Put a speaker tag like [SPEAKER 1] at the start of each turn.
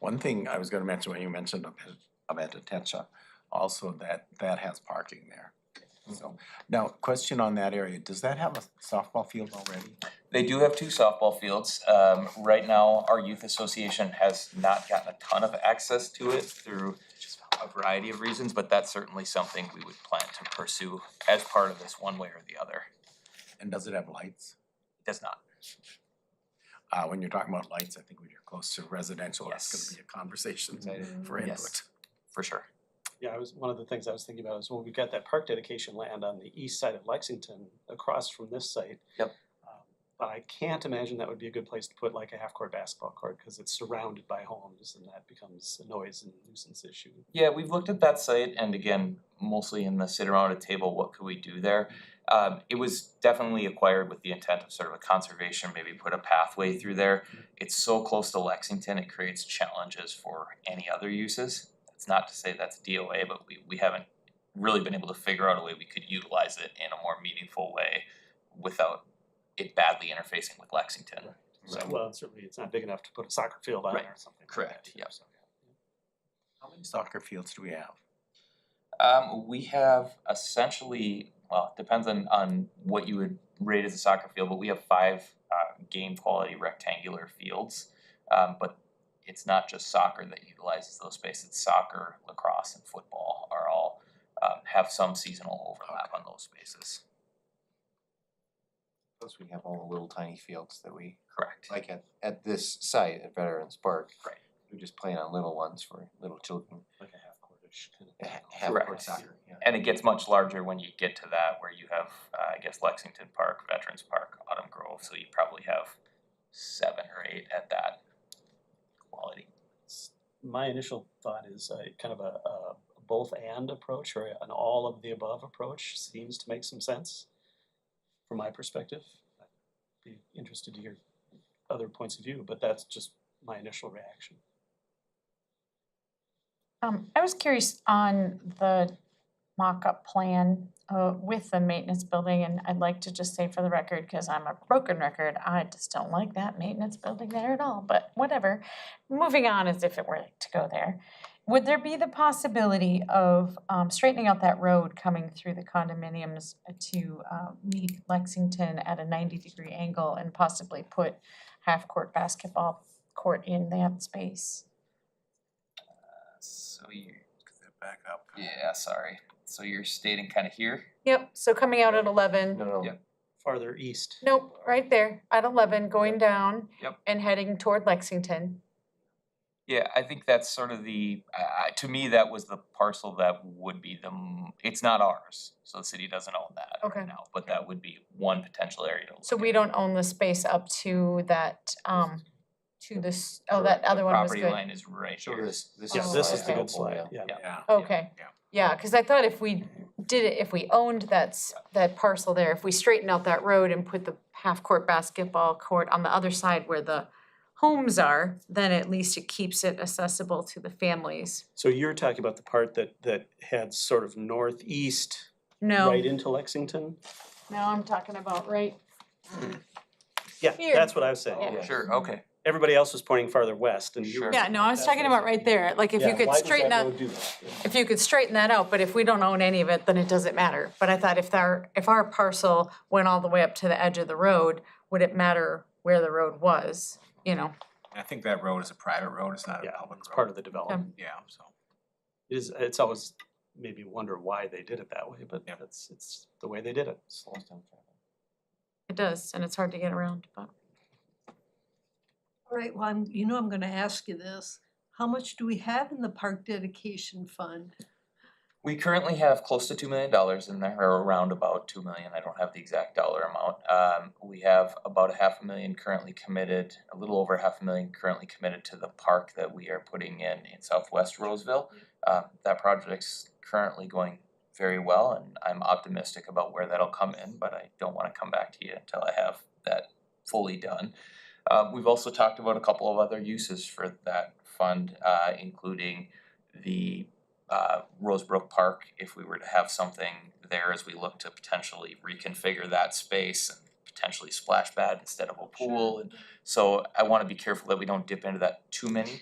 [SPEAKER 1] One thing I was gonna mention, when you mentioned of it- of Atetecha, also that, that has parking there. So, now, question on that area, does that have a softball field already?
[SPEAKER 2] They do have two softball fields. Um, right now, our youth association has not gotten a ton of access to it through a variety of reasons, but that's certainly something we would plan to pursue as part of this one way or the other.
[SPEAKER 1] And does it have lights?
[SPEAKER 2] It Does not.
[SPEAKER 1] Uh, when you're talking about lights, I think when you're close to residential, that's
[SPEAKER 2] Yes.
[SPEAKER 1] gonna be a conversation
[SPEAKER 2] Excited.
[SPEAKER 1] for
[SPEAKER 2] Yes.
[SPEAKER 1] input.
[SPEAKER 2] For sure.
[SPEAKER 3] Yeah, I was, one of the things I was thinking about is when we got that park dedication land on the east side of Lexington, across from this site.
[SPEAKER 2] Yep.
[SPEAKER 3] um, But I can't imagine that would be a good place to put like a half-court basketball court, because it's surrounded by homes, and that becomes a noise and nuisance issue.
[SPEAKER 2] Yeah, we've looked at that site and again, mostly in the sit around a table, what could we do there? Um, it was definitely acquired with the intent of sort of a conservation, maybe put a pathway through there. It's so close to Lexington, it creates challenges for any other uses. It's not to say that's DOA, but we we haven't really been able to figure out a way we could utilize it in a more meaningful way without it badly interfacing with Lexington.
[SPEAKER 3] Right.
[SPEAKER 2] So-
[SPEAKER 3] So, well, certainly it's not big enough to put a soccer field on it or something. like
[SPEAKER 2] Correct,
[SPEAKER 3] that,
[SPEAKER 2] yep.
[SPEAKER 3] so,
[SPEAKER 1] How many soccer fields do we have?
[SPEAKER 2] Um, we have essentially, well, it depends on, on what you would rate as a soccer field, but we have five uh, game quality rectangular fields. Um, but it's not just soccer that utilizes those spaces. Soccer, lacrosse, and football are all um, have some seasonal overlap on those spaces.
[SPEAKER 4] Plus, we have all the little tiny fields that we,
[SPEAKER 2] Correct.
[SPEAKER 4] like at, at this site at Veterans Park.
[SPEAKER 2] Right.
[SPEAKER 4] We're just playing on little ones for little children,
[SPEAKER 3] Like a half-courtish kind of.
[SPEAKER 4] ha- half
[SPEAKER 2] Correct.
[SPEAKER 4] court soccer, yeah.
[SPEAKER 2] And it gets much larger when you get to that, where you have, uh, I guess, Lexington Park, Veterans Park, Autumn Grove. So you probably have seven or eight at that quality.
[SPEAKER 3] s- my initial thought is uh, kind of a, a both and approach or an all of the above approach seems to make some sense from my perspective. I'd be interested to hear other points of view, but that's just my initial reaction.
[SPEAKER 5] Um, I was curious on the mock-up plan, uh, with the maintenance building, and I'd like to just say for the record, cause I'm a broken record, I just don't like that maintenance building there at all, but whatever. Moving on as if it were to go there, would there be the possibility of, um, straightening out that road coming through the condominiums to, uh, meet Lexington at a ninety-degree angle and possibly put half-court basketball court in that space?
[SPEAKER 2] So you
[SPEAKER 1] Back up.
[SPEAKER 2] Yeah, sorry. So you're stating kind of here?
[SPEAKER 5] Yep, so coming out at eleven,
[SPEAKER 4] No, no,
[SPEAKER 2] Yep.
[SPEAKER 3] Farther east.
[SPEAKER 5] nope, right there, at eleven, going down.
[SPEAKER 2] Yep.
[SPEAKER 5] And heading toward Lexington.
[SPEAKER 2] Yeah, I think that's sort of the, uh, to me, that was the parcel that would be the, m- it's not ours. So the city doesn't own that
[SPEAKER 5] Okay.
[SPEAKER 2] right now, but that would be one potential area to look
[SPEAKER 5] So we
[SPEAKER 2] at.
[SPEAKER 5] don't own the space up to that, um, to this, oh, that
[SPEAKER 2] Correct.
[SPEAKER 5] other one was
[SPEAKER 2] The
[SPEAKER 5] good.
[SPEAKER 2] property line is right
[SPEAKER 4] Sure,
[SPEAKER 2] here.
[SPEAKER 4] this, this is.
[SPEAKER 5] Oh,
[SPEAKER 3] Yeah, this is the
[SPEAKER 4] slide
[SPEAKER 3] good
[SPEAKER 4] helpful,
[SPEAKER 3] slide,
[SPEAKER 4] yeah.
[SPEAKER 3] yeah.
[SPEAKER 1] Yeah.
[SPEAKER 5] Okay,
[SPEAKER 1] Yeah.
[SPEAKER 5] yeah, cause I thought if we did it, if we owned that, s- that parcel there, if we straightened out that road and put the half-court basketball court on the other side where the homes are, then at least it keeps it accessible to the families.
[SPEAKER 3] So you're talking about the part that, that heads sort of northeast
[SPEAKER 5] No,
[SPEAKER 3] right into Lexington?
[SPEAKER 5] no, I'm talking about right
[SPEAKER 3] Yeah,
[SPEAKER 5] Here.
[SPEAKER 3] that's what I was saying.
[SPEAKER 1] Oh,
[SPEAKER 5] Yeah.
[SPEAKER 3] yeah.
[SPEAKER 2] Sure, okay.
[SPEAKER 3] Everybody else was pointing farther west and you
[SPEAKER 2] Sure.
[SPEAKER 3] were.
[SPEAKER 5] Yeah, no, I was
[SPEAKER 3] That's
[SPEAKER 5] talking
[SPEAKER 3] what
[SPEAKER 5] about
[SPEAKER 3] I'm
[SPEAKER 5] right there, like if you
[SPEAKER 3] Yeah,
[SPEAKER 5] could
[SPEAKER 3] why does that
[SPEAKER 5] straighten out,
[SPEAKER 3] road do that? Yeah.
[SPEAKER 5] if you could straighten that out, but if we don't own any of it, then it doesn't matter. But I thought if our, if our parcel went all the way up to the edge of the road, would it matter where the road was, you know?
[SPEAKER 1] I think that road is a private road, it's not
[SPEAKER 3] Yeah, it's part of the development.
[SPEAKER 1] Yeah, so.
[SPEAKER 3] It is, it's always made me wonder why they did it that way, but
[SPEAKER 1] Yep.
[SPEAKER 3] that's, it's the way they did it.
[SPEAKER 4] Slows down traffic.
[SPEAKER 5] It does, and it's hard to get around, but.
[SPEAKER 6] All right, well, I'm, you know I'm gonna ask you this. How much do we have in the park dedication fund?
[SPEAKER 2] We currently have close to two million dollars in there, or around about two million, I don't have the exact dollar amount. Um, we have about a half a million currently committed, a little over half a million currently committed to the park that we are putting in in southwest Roseville. Um, that project's currently going very well, and I'm optimistic about where that'll come in, but I don't wanna come back to you until I have that fully done. Um, we've also talked about a couple of other uses for that fund, uh, including the uh, Rosebrook Park, if we were to have something there as we look to potentially reconfigure that space and potentially splash pad instead of a pool. And So I wanna be careful that we don't dip into that too many,